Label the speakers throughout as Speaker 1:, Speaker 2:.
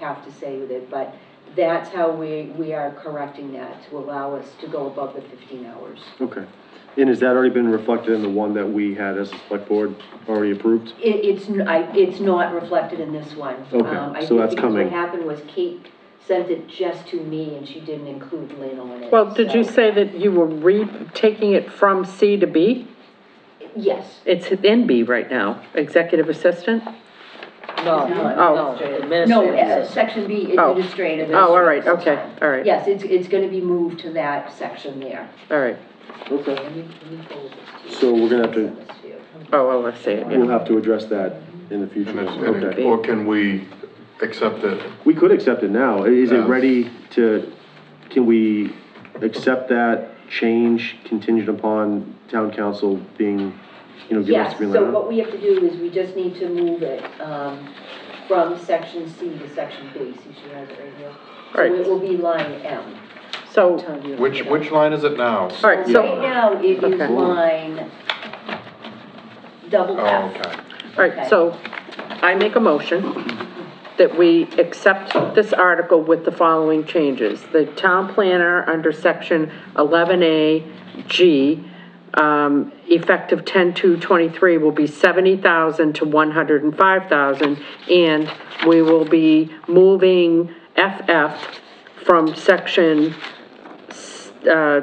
Speaker 1: have to say with it, but that's how we, we are correcting that to allow us to go above the fifteen hours.
Speaker 2: Okay. And has that already been reflected in the one that we had as a select board already approved?
Speaker 1: It, it's, n I it's not reflected in this one.
Speaker 2: Okay,
Speaker 1: Um, I
Speaker 2: so
Speaker 1: think
Speaker 2: that's
Speaker 1: because
Speaker 2: coming.
Speaker 1: What happened was Kate sent it just to me and she didn't include Lynn on it.
Speaker 3: Well, did you
Speaker 1: so-
Speaker 3: say that you were re, taking it from C to B?
Speaker 1: Yes,
Speaker 3: It's in B right now, executive assistant?
Speaker 1: no, no,
Speaker 3: Oh.
Speaker 1: no. No, uh,
Speaker 4: Administrative.
Speaker 1: section B,
Speaker 3: Oh.
Speaker 1: administrative.
Speaker 3: Oh, all right,
Speaker 1: assistant.
Speaker 3: okay, all right.
Speaker 1: Yes, it's, it's gonna be moved to that section there.
Speaker 3: All right,
Speaker 2: Okay.
Speaker 1: Let me, let me fold this to you.
Speaker 2: So we're gonna have to-
Speaker 1: Send this you.
Speaker 3: oh, oh, I see it,
Speaker 2: We'll
Speaker 3: yeah.
Speaker 2: have to address that in the future.
Speaker 5: And it's- and it-
Speaker 2: Okay.
Speaker 5: Or can we accept it?
Speaker 2: We could accept it now. Is it
Speaker 5: Yeah.
Speaker 2: ready to, can we accept that change contingent upon town council being, you know, give us
Speaker 1: Yes,
Speaker 2: the green
Speaker 1: so
Speaker 2: light?
Speaker 1: what we have to do is we just need to move it, um, from section C to section B, see she has it right here. So
Speaker 3: Right.
Speaker 1: it will be line M.
Speaker 3: So,
Speaker 1: Tell you.
Speaker 5: Which, which line is it now?
Speaker 3: all right, so,
Speaker 1: Right now, it is
Speaker 3: Okay.
Speaker 1: line double
Speaker 5: Oh,
Speaker 1: F.
Speaker 5: okay.
Speaker 3: all right, so I make a motion that we accept this article with the following changes. The town planner under section eleven A G, um, effective 10-2-23 will be seventy thousand to one hundred and five thousand. And we will be moving FF from section uh,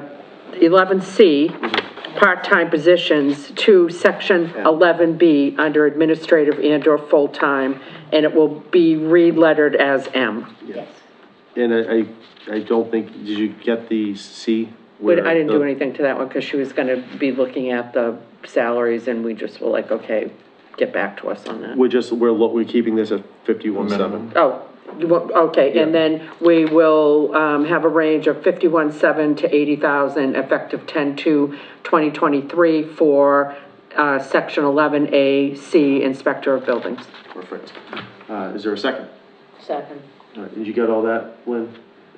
Speaker 3: 11C, part-time positions, to section 11B under administrative and/or full-time, and it will be re-lettered as M.
Speaker 1: Yes.
Speaker 2: And I, I, I don't think, did you get the C?
Speaker 3: But
Speaker 2: where
Speaker 3: I didn't do
Speaker 2: the-
Speaker 3: anything to that one because she was going to be looking at the salaries, and we just were like, okay, get back to us on that.
Speaker 2: We're just, we're, lo- we're keeping this at fifty-one seven.
Speaker 5: Minimum.
Speaker 3: Oh, you want- okay, and
Speaker 2: Yeah.
Speaker 3: then we will um, have a range of 51.7 to 80,000 effective 10/2/2023 for uh, Section 11A, C, Inspector of Buildings.
Speaker 2: Perfect. Uh, is there a second?
Speaker 1: Second.
Speaker 2: All right, did you get all that, Lynn?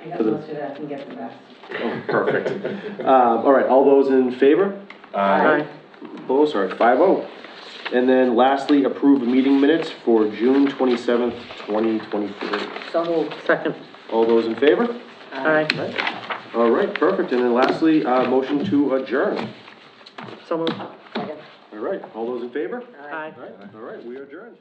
Speaker 4: I got most of that, I can get the rest.
Speaker 2: Oh, Perfect. Um, all right, all those in favor?
Speaker 3: Aye.
Speaker 2: Opposed, all right, five oh. And then lastly, approve meeting minutes for June twenty-seventh, twenty twenty-three.
Speaker 1: So moved.
Speaker 3: Second.
Speaker 2: All those in favor?
Speaker 3: Aye.
Speaker 2: All right, perfect. And then lastly, uh, motion to adjourn.
Speaker 3: So moved.
Speaker 2: All right, all those in favor?
Speaker 3: Aye.
Speaker 2: All right, all right, we adjourn.